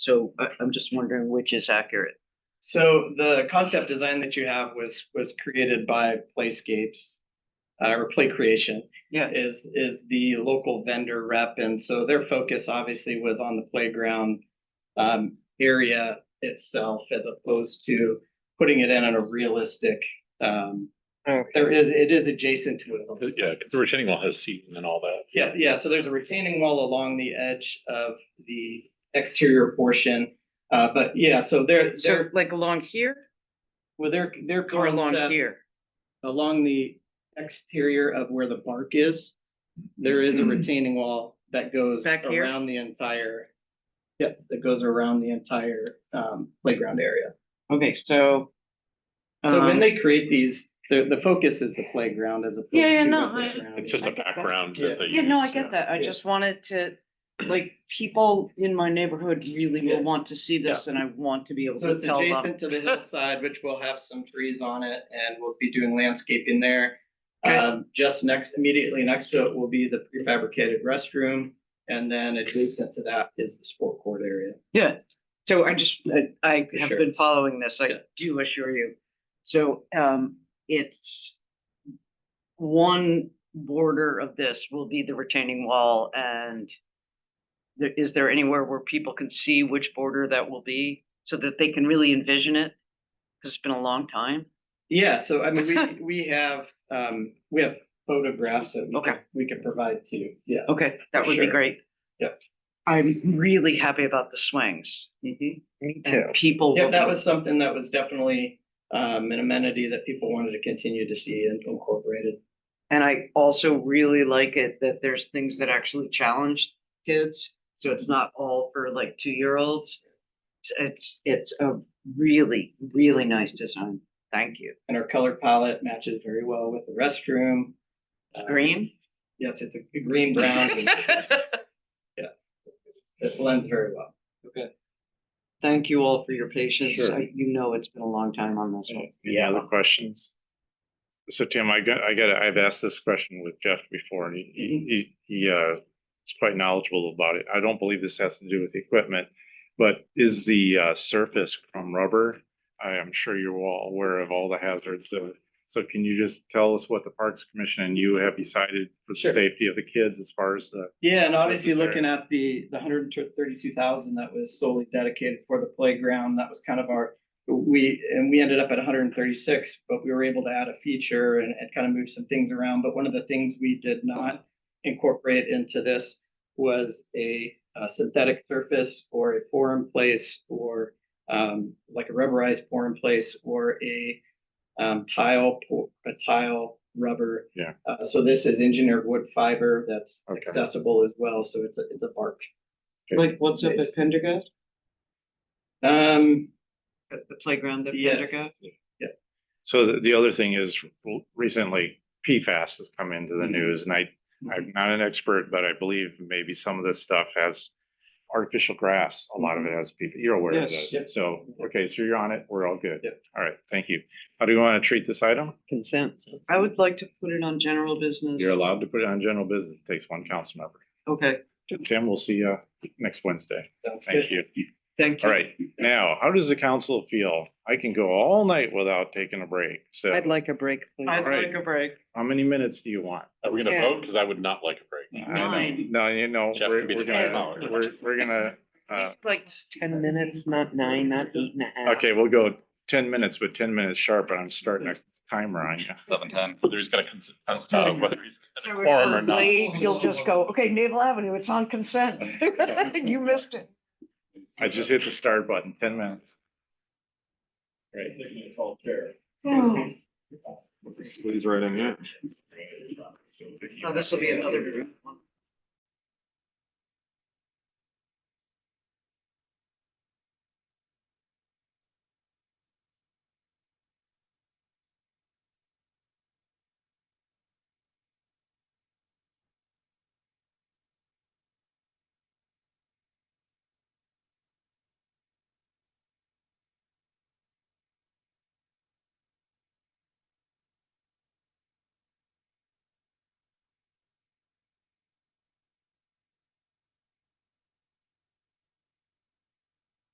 So I, I'm just wondering which is accurate. So the concept design that you have was, was created by Playscapes. Uh, or Play Creation Yeah. is, is the local vendor rep, and so their focus obviously was on the playground. Um, area itself as opposed to putting it in on a realistic, um. Okay. There is, it is adjacent to it. Uh, Yeah, because the retaining wall has seating and all that. Yeah, yeah, so there's a retaining wall along the edge of the exterior portion. Uh, but yeah, so they're, So they're, like along here well, they're, they're. or along here? along the exterior of where the bark is, there is a retaining wall that goes Back here? around the entire. Yep, that goes around the entire um playground area. Okay, so. So um, when they create these, the the focus is the playground as opposed to. Yeah, yeah, no, what the I- surrounding- It's just I a get that. background Yeah. that they Yeah, no, I use, get yeah. that. I Yeah. just wanted to, like, people in my neighborhood really will Yes. want to see this and I want to be able So to it's tell uh, them. adjacent to the hillside, which will have some trees on it and we'll be doing landscaping there. Okay. Um, just next, immediately next to it will be the prefabricated restroom. And then adjacent to that is the sport court area. Yeah, so I just, I- I have Sure. been following this, Yeah. I do assure you. So, um, it's one border of this will be the retaining wall and there, is there anywhere where people can see which border that will be so that they can really envision it? Cause it's been a long time. Yeah, so I mean, we, we have, um, we have photographs that Okay. we can provide to you, yeah. Okay, that would be Sure. great. Yep. I'm really happy about the swings. Me too. People. Mm-hmm. Yeah, will that be- was something that was definitely, um, an amenity that people wanted to continue to see and incorporated. And I also really like it that there's things that actually challenge kids. So it's not all for like two-year-olds. It's- It's, it's a really, really nice design. Thank you. And our color palette matches very well with the restroom. Um, Green? Yes, it's a green, brown, and it blends very well. Thank you all for your patience. Sure. I- You know, it's been a long time on this one. Any other questions? So Tim, I got, I got, I've asked this question with Jeff before and he- Mm-hmm. he, he, he, uh, is quite knowledgeable about it. I don't believe this has to do with the equipment, but is the, uh, surface from rubber? I am sure you're all aware of all the hazards of, so can you just tell us what the Parks Commission and you have decided for the Sure. safety of the kids as far as the, Yeah, and obviously Wasn't looking at the, the hundred and thirty-two thousand that was solely dedicated for the playground, that was kind of our, we, and we ended up at hundred and thirty-six, but we were able to add a feature and, and kind of move some things around, but one of the things we did not incorporate into this was a uh, synthetic surface or a pour-in-place or um, like a rubberized pour-in-place or a um, tile, pour- a tile, rubber. Yeah. Uh, so this is engineered wood fiber that's okay. accessible as well, so it's a, it's a park. Like what's up at Pendergast? Um, At the playground at Yes. Pendergast? So the, the other thing is r- recently PFAS has come into the Mhm. news and I, I'm not an expert, but I believe maybe some of this stuff has artificial grass. A lot of it has, PFAS. you're aware of Yes. Yep. this. So, okay, so you're on it. We're all good. Yep. All right, thank you. How do you want to treat this item? Consent. I would like to put it on general business. You're allowed to put it on general business. It takes one council member. Okay, Tim, we'll see you next Wednesday. sounds good. Thank you. thank you. All right, now, how does the council feel? I can go all night without taking a break. So I'd like a break, please. I'd Alright. like a break. how many minutes do you want? Are we gonna Yeah. vote? Cause I would not like a break. I know. Nine. No, you know, Jeff we're, could be we're the gonna, timeout. we're, we're gonna, uh, Like ten minutes, not nine, not eight and a half. okay, we'll go ten minutes, but ten minutes sharp, and I'm starting a timer on you. Seven ten, whether he's gonna cons- uh, whether he's So a we're quorum gonna or not. Leave, you'll just go, okay, Naval Avenue, it's on consent. You missed it. I just hit the start button, ten minutes. Right. Oh. Squeeze right in here. Now, this will be another. group one.